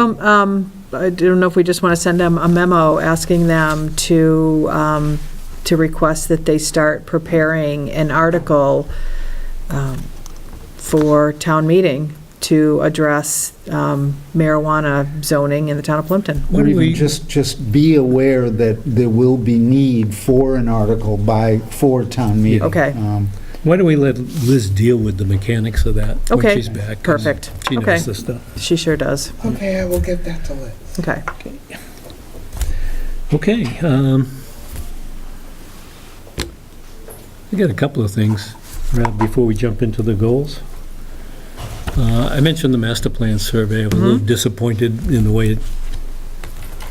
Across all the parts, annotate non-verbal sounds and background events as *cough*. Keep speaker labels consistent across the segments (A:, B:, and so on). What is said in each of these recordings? A: Um, um, I don't know if we just want to send them a memo asking them to, um, to request that they start preparing an article um, for town meeting to address um, marijuana zoning in the town of Plimpton.
B: Or
C: When
B: even
C: we-
B: just, just be aware that there will be need for an article by, for town meeting.
A: Okay.
B: Um,
C: Why don't we let Liz deal with the mechanics of that when
A: Okay,
C: she's back? 'cause
A: perfect.
C: She
A: Okay.
C: knows this stuff.
A: She sure does.
D: Okay, I will give that to Liz.
A: Okay.
C: Okay. um, I got a couple of things right before we jump into the goals. Uh, I mentioned the master plan survey. I was a
A: Mm-hmm.
C: little disappointed in the way it-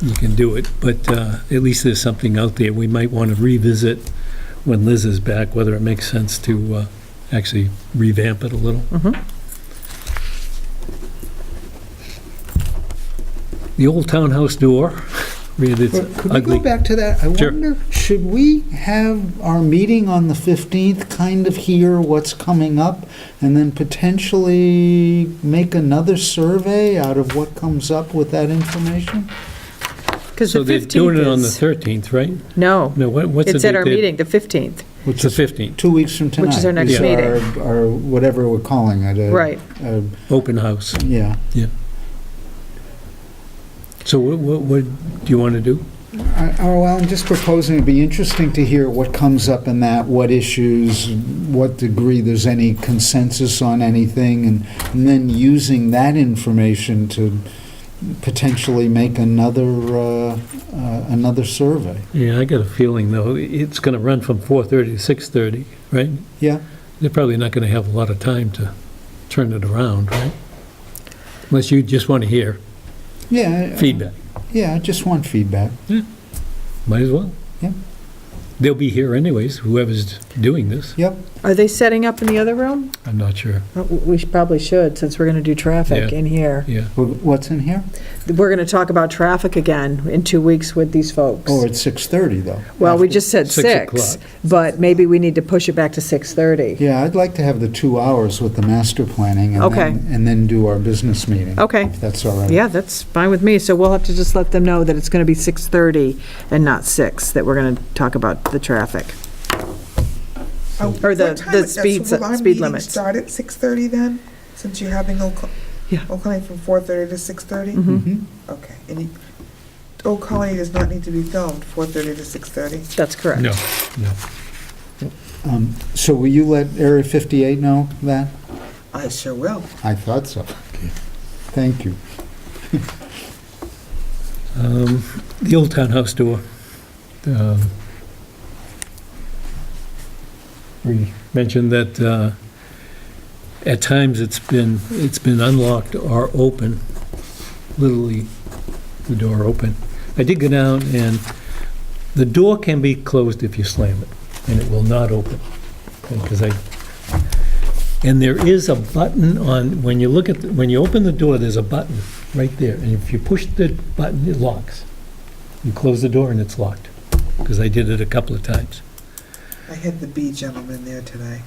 C: you can do it, but uh, at least there's something out there. We might want to revisit when Liz is back, whether it makes sense to uh, actually revamp it a little.
A: Mhm.
C: The old townhouse door, *laughs* read its
B: but Could we
C: ugly
B: go back to that? I
C: Sure.
B: wonder, should we have our meeting on the 15th, kind of hear what's coming up, and then potentially make another survey out of what comes up with that information?
A: Because the
C: So they're doing it
A: 15th
C: on the
A: is,
C: 13th, right?
A: no,
C: No, what- what's the
A: it's at
C: date
A: our
C: they-
A: meeting, the 15th.
C: It's the 15th,
B: Two weeks from tonight.
A: Which is our next meeting.
B: Or whatever we're calling it. a-
A: Right.
B: a-
C: open house.
B: Yeah.
C: So what, what, what do you want to do?
B: I- Oh, well, I'm just proposing, it'd be interesting to hear what comes up in that, what issues, what degree there's any consensus on anything, and and then using that information to potentially make another, uh, uh, another survey.
C: Yeah, I got a feeling though, it's going to run from 4:30 to 6:30, right?
B: Yeah?
C: They're probably not going to have a lot of time to turn it around, right? Unless you just want to hear
B: Yeah. I-
C: feedback.
B: Yeah, I just want feedback.
C: Might as well.
B: Yeah.
C: They'll be here anyways, whoever's doing this.
B: Yep.
A: Are they setting up in the other room?
C: I'm not sure,
A: Uh, We should- probably should, since we're going to do traffic
C: Yeah.
A: in here.
C: yeah.
B: Wh- What's in here?
A: We're going to talk about traffic again in two weeks with these folks.
B: Oh, it's 6:30, though.
A: Well, we just said
C: Six
A: six,
C: o'clock.
A: but maybe we need to push it back to 6:30.
B: Yeah, I'd like to have the two hours with the master planning. and
A: Okay.
B: then- And then do our business meeting.
A: Okay,
B: If that's all right.
A: yeah, that's fine with me, so we'll have to just let them know that it's going to be 6:30 and not six. that we're going to talk about the traffic.
D: Oh,
A: Or the-
D: what time
A: the
D: it- so
A: speeds-
D: will our
A: speed
D: meeting
A: limits.
D: Start at 6:30 then, since you're having Old Col-
A: Yeah. Mm-hmm.
D: Old Colony from 4:30 to 6:30?
B: Mhm.
D: Okay, and you- Old Colony does not need to be filmed, 4:30 to 6:30?
A: That's correct.
C: No, no.
B: Um, So will you let Area 58 know that?
D: I sure will.
B: I thought so. Thank you.
C: Um, The old townhouse door. um, We mentioned that uh, at times it's been, it's been unlocked or open, literally the door open. I did go down and the door can be closed if you slam it, and it will not open. Because I, and there is a button on, when you look at, the- when you open the door, there's a button right there, and if you push the button, it locks. You close the door and it's locked, because I did it a couple of times.
D: I had the bee gentleman there today.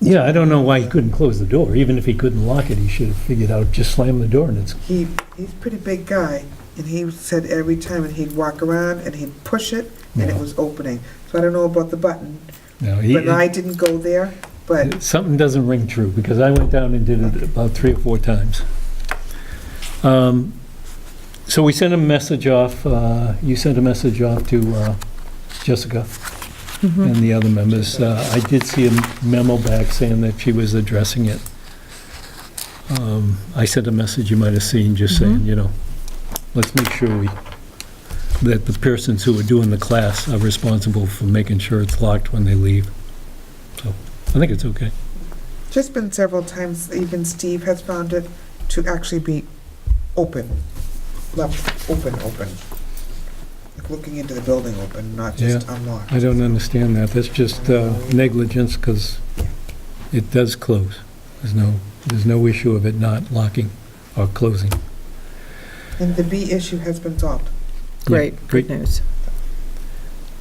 C: Yeah, I don't know why he couldn't close the door, even if he couldn't lock it, he should have figured out, just slam the door and it's,
D: He, he's a pretty big guy, and he said every time, and he'd walk around, and he'd push it, and it
C: Yeah.
D: was opening. So I don't know about the button,
C: no, he,
D: but I didn't go there, but
C: something doesn't ring true, because I went down and did it about three or four times. Um, So we sent a message off, uh, you sent a message off to uh, Jessica and the other members. Uh, I did see a memo back saying that she was addressing it. Um, I sent a message you might have seen, just saying, you know, let's make sure we, that the persons who are doing the class are responsible for making sure it's locked when they leave. So I think it's okay.
D: just been several times, even Steve has found it to actually be open, left open, open. Like looking into the building open, not just unlocked.
C: I don't understand that. That's just uh, negligence because it does close. There's no, there's no issue of it not locking or closing.
D: And the B issue has been solved.
A: Great, good
C: great.
A: news.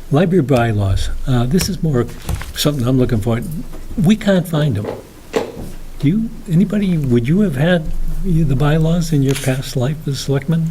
C: Library bylaws, Uh, this is more something I'm looking for. We can't find them. Do you, anybody, would you have had you- the bylaws in your past life as selectman?